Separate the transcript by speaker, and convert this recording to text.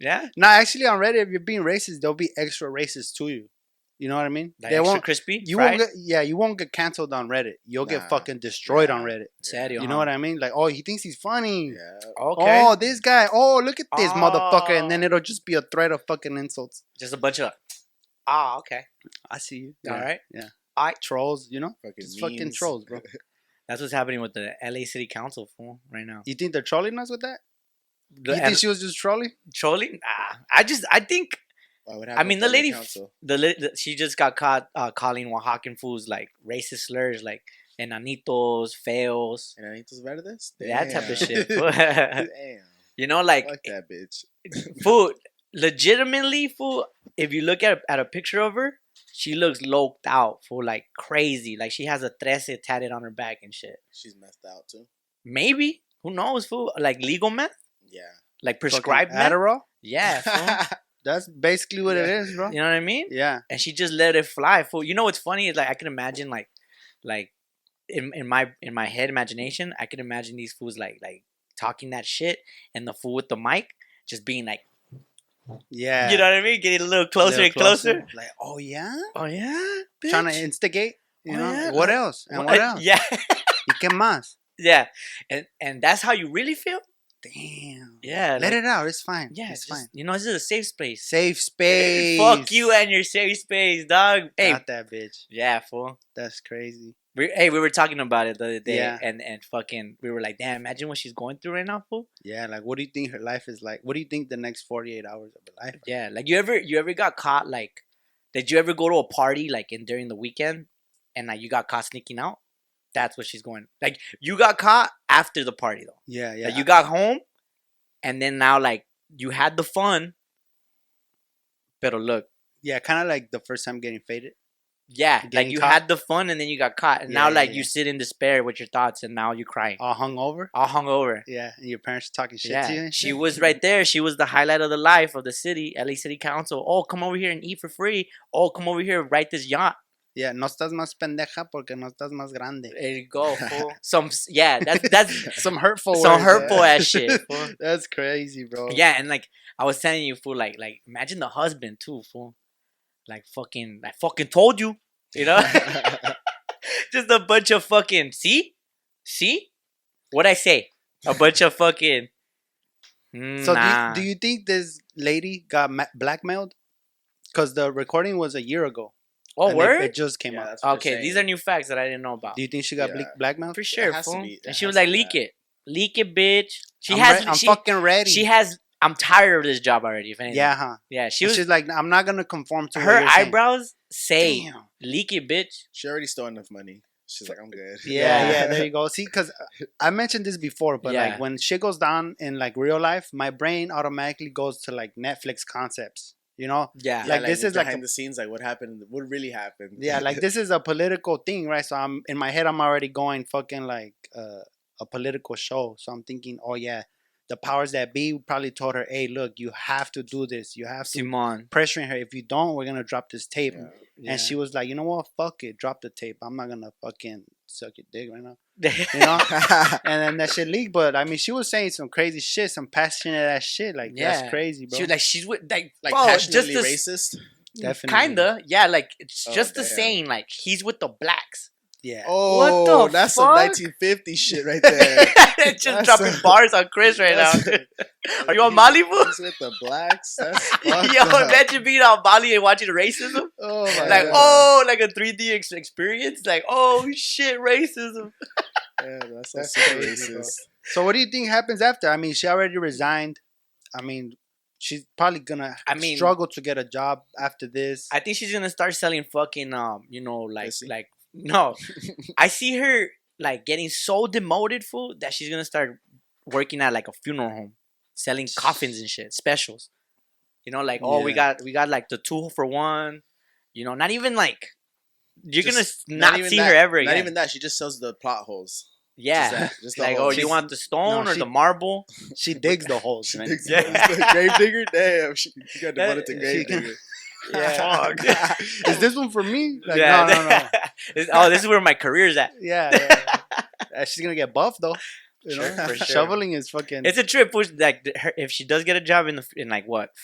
Speaker 1: Yeah,
Speaker 2: No, actually, on Reddit, if you're being racist, they'll be extra racist to you. You know what I mean?
Speaker 1: like
Speaker 2: they
Speaker 1: extra
Speaker 2: won't.
Speaker 1: crispy.
Speaker 2: You won't
Speaker 1: fried.
Speaker 2: get. Yeah, you won't get canceled on Reddit. You'll
Speaker 3: Nah.
Speaker 2: get fucking destroyed on Reddit.
Speaker 1: Serio,
Speaker 2: You know what I mean? Like, oh, he thinks he's funny.
Speaker 3: Yeah.
Speaker 1: Okay,
Speaker 2: Oh, this guy. Oh, look at this motherfucker. And then
Speaker 1: Oh.
Speaker 2: it'll just be a thread of fucking insults.
Speaker 1: just a bunch of. Ah, okay,
Speaker 2: I see you.
Speaker 1: all right.
Speaker 2: Trolls, you know?
Speaker 3: Fucking
Speaker 2: Just fucking
Speaker 3: memes.
Speaker 2: trolls, bro.
Speaker 1: That's what's happening with the LA City Council fool right now.
Speaker 2: You think they're trolling us with that?
Speaker 1: The
Speaker 2: you
Speaker 1: L-
Speaker 2: think she was just trolling?
Speaker 1: trolling? Ah, I just I think
Speaker 3: Why would
Speaker 1: I mean, the
Speaker 3: have a
Speaker 1: lady-
Speaker 3: council?
Speaker 1: the, li- the she just got caught uh, calling Oaxacan fools like racist slurs like enanitos, fails,
Speaker 3: And I need to better this.
Speaker 1: that type of shit.
Speaker 3: Damn.
Speaker 1: fool.
Speaker 3: Damn.
Speaker 1: you know, like
Speaker 3: Fuck that bitch.
Speaker 1: fool, legitimately fool. If you look at at a picture of her, she looks loped out fool, like crazy. Like she has a trece tatted on her back and shit.
Speaker 3: She's messed out too.
Speaker 1: Maybe who knows fool? Like legal meth,
Speaker 3: Yeah.
Speaker 1: like
Speaker 2: Fucking
Speaker 1: prescribed meth.
Speaker 2: Adderall?
Speaker 1: Yeah, fool.
Speaker 2: That's basically what it
Speaker 3: Yeah.
Speaker 2: is, bro.
Speaker 1: you know what I mean.
Speaker 2: Yeah.
Speaker 1: and she just let it fly. Fool. You know what's funny is like I can imagine like, like, in, in my in my head imagination, I can imagine these fools like like talking that shit, and the fool with the mic just being like,
Speaker 2: Yeah.
Speaker 1: you know what I mean, getting a little closer
Speaker 2: Little
Speaker 1: and closer.
Speaker 2: Like, oh yeah,
Speaker 1: Oh yeah,
Speaker 2: trying to
Speaker 1: bitch.
Speaker 2: instigate. You
Speaker 1: Oh,
Speaker 2: know
Speaker 1: yeah,
Speaker 2: what
Speaker 1: like-
Speaker 2: else? And
Speaker 1: What-
Speaker 2: what else?
Speaker 1: Yeah,
Speaker 2: ¿Y qué más?
Speaker 1: yeah, and and that's how you really feel.
Speaker 2: Damn.
Speaker 1: Yeah,
Speaker 2: Let
Speaker 1: like-
Speaker 2: it out. It's fine.
Speaker 1: Yeah,
Speaker 2: it's
Speaker 1: just-
Speaker 2: fine.
Speaker 1: You know, this is a safe space.
Speaker 2: Safe space.
Speaker 1: Fuck you and your safe space, dog. Hey,
Speaker 2: Got that bitch.
Speaker 1: yeah, fool.
Speaker 2: That's crazy.
Speaker 1: We, hey, we were talking about it the other day,
Speaker 2: Yeah.
Speaker 1: and and fucking, we were like, damn, imagine what she's going through right now, fool.
Speaker 2: Yeah, like what do you think her life is like? What do you think the next forty eight hours of her life? are?
Speaker 1: Yeah, like you ever you ever got caught like did you ever go to a party like in during the weekend and like you got caught sneaking out? That's what she's going. Like you got caught after the party though.
Speaker 2: Yeah, yeah.
Speaker 1: Like you got home and then now like you had the fun. But look,
Speaker 2: yeah, kind of like the first time getting faded.
Speaker 1: yeah, like
Speaker 2: Getting
Speaker 1: you
Speaker 2: caught.
Speaker 1: had the fun and then you got caught and
Speaker 2: Yeah,
Speaker 1: now
Speaker 2: yeah,
Speaker 1: like
Speaker 2: yeah. Oh.
Speaker 1: you sit in despair with your thoughts and now you're crying.
Speaker 2: All hungover.
Speaker 1: All hungover.
Speaker 2: Yeah, and your parents talking shit to you.
Speaker 1: Yeah,
Speaker 2: and
Speaker 1: she
Speaker 2: shit?
Speaker 1: was right there. She was the highlight of the life of the city, LA City Council. Oh, come over here and eat for free. Oh, come over here, ride this yacht.
Speaker 2: Yeah, no estás más pendeja porque no estás más grande.
Speaker 1: There you go. fool. Some s- yeah, that's that's
Speaker 2: Some hurtful.
Speaker 1: some
Speaker 2: words,
Speaker 1: hurtful eh.
Speaker 2: yeah.
Speaker 1: ass shit. fool.
Speaker 2: That's crazy, bro.
Speaker 1: Yeah, and like I was telling you, fool, like like imagine the husband too, fool. Like fucking, I fucking told you, you know, just a bunch of fucking. See, see, what I say? A bunch of fucking.
Speaker 2: So
Speaker 1: nah.
Speaker 2: do, you, do you think this lady got ma- blackmailed? Because the recording was a year ago.
Speaker 1: oh
Speaker 2: and it-
Speaker 1: word.
Speaker 2: It, just came
Speaker 3: Yeah,
Speaker 2: out.
Speaker 3: that's what they're
Speaker 1: okay, these are
Speaker 3: saying.
Speaker 1: new facts that I didn't know about.
Speaker 2: Do you think she got
Speaker 3: Yeah.
Speaker 2: ble- blackmailed?
Speaker 1: For sure,
Speaker 3: has to
Speaker 1: fool.
Speaker 3: be- it
Speaker 1: and she was
Speaker 3: has
Speaker 1: like,
Speaker 3: to be
Speaker 1: leak
Speaker 3: that.
Speaker 1: it, leak it, bitch. She
Speaker 2: I'm
Speaker 1: has.
Speaker 2: re- I'm
Speaker 1: she,
Speaker 2: fucking ready.
Speaker 1: she has. I'm tired of this job already. If anything.
Speaker 2: yeah, huh?
Speaker 1: Yeah, she
Speaker 2: She
Speaker 1: was.
Speaker 2: She's like, I'm not gonna conform to what
Speaker 1: her
Speaker 2: you're saying."
Speaker 1: eyebrows say
Speaker 2: Damn.
Speaker 1: "leak it, bitch."
Speaker 3: She already stole enough money. She's like, I'm good.
Speaker 2: Yeah,
Speaker 1: Yeah.
Speaker 2: yeah, there you go. See, because I mentioned this before, but
Speaker 1: Yeah.
Speaker 2: like when shit goes down in like real life, my brain automatically goes to like Netflix concepts. You know,
Speaker 1: Yeah,
Speaker 2: like, this
Speaker 3: the
Speaker 2: is like a-
Speaker 3: behind the scenes, like what happened, what really happened.
Speaker 2: yeah like this is a political thing right so i'm in my head i'm already going fucking like uh, a political show so i'm thinking oh yeah the powers that be probably told her hey look you have to do this you have to
Speaker 1: Simon.
Speaker 2: pressuring her if you don't we're gonna drop this tape
Speaker 3: Yeah.
Speaker 1: Yeah.
Speaker 2: and she was like you know what fuck it drop the tape i'm not gonna fucking suck your dick right now you
Speaker 1: yeah,
Speaker 2: know and then that shit leaked but i mean she was saying some crazy shit some passionate ass shit like
Speaker 1: Yeah.
Speaker 2: that's crazy bro
Speaker 1: she was like, she's with like,
Speaker 3: like
Speaker 1: bro, Oh, just
Speaker 3: passionately
Speaker 1: this-
Speaker 3: racist.
Speaker 2: Definitely.
Speaker 1: Kinda, yeah. Like it's
Speaker 3: Oh,
Speaker 1: just the
Speaker 3: damn.
Speaker 1: saying, like he's with the blacks.
Speaker 2: yeah
Speaker 3: Oh,
Speaker 1: What the
Speaker 3: that's
Speaker 1: fuck?
Speaker 3: some 1950 shit right there.
Speaker 1: just
Speaker 3: That's
Speaker 1: dropping
Speaker 3: a-
Speaker 1: bars on Chris right now.
Speaker 3: That's-
Speaker 1: Are you on
Speaker 3: He's-
Speaker 1: Malibu?
Speaker 3: he's with the blacks. That's fucked
Speaker 1: Yo,
Speaker 3: up.
Speaker 1: imagine being on Bali and watching racism.
Speaker 3: oh my
Speaker 1: Like,
Speaker 3: God.
Speaker 1: oh, like a 3D ex- experience. Like, oh shit, racism.
Speaker 3: Yeah, that's,
Speaker 2: That's
Speaker 3: that's super
Speaker 2: crazy, bro.
Speaker 3: racist.
Speaker 2: So what do you think happens after? I mean, she already resigned. I mean, she's probably gonna
Speaker 1: I mean-
Speaker 2: struggle to get a job after this.
Speaker 1: I think she's gonna start selling fucking um, you know, like
Speaker 3: Pussy.
Speaker 1: like no. I see her like getting so demoted fool that she's gonna start working at like a funeral home, selling coffins and shit, specials. You know, like oh we
Speaker 2: Yeah.
Speaker 1: got we got like the two for one, you know, not even like you're
Speaker 3: Just
Speaker 1: gonna not,
Speaker 3: even
Speaker 1: see
Speaker 3: that-
Speaker 1: her ever again.
Speaker 3: Not even that. She just sells the plot holes. Just
Speaker 1: yeah.
Speaker 3: that, just the
Speaker 1: Like, oh,
Speaker 3: holes.
Speaker 1: you want the stone
Speaker 2: no,
Speaker 1: or
Speaker 2: she-
Speaker 1: the marble?
Speaker 2: she digs the holes.
Speaker 3: She
Speaker 2: man.
Speaker 3: digs
Speaker 1: Yeah.
Speaker 3: yeah. the grave digger? Damn, she, she got
Speaker 1: That-
Speaker 3: demoted to grave
Speaker 2: she-
Speaker 3: digger.
Speaker 1: Yeah. Fuck.
Speaker 2: Is this one for me? Like,
Speaker 1: yeah.
Speaker 2: No, no, no.
Speaker 1: oh, this is where my career's at.
Speaker 2: Yeah. yeah, yeah. Uh, she's gonna get buff though. You
Speaker 1: Sure,
Speaker 2: know,
Speaker 1: for sure.
Speaker 2: shoveling is fucking.
Speaker 1: It's a trip. Which like th- her, if she does get a job in the f- in like what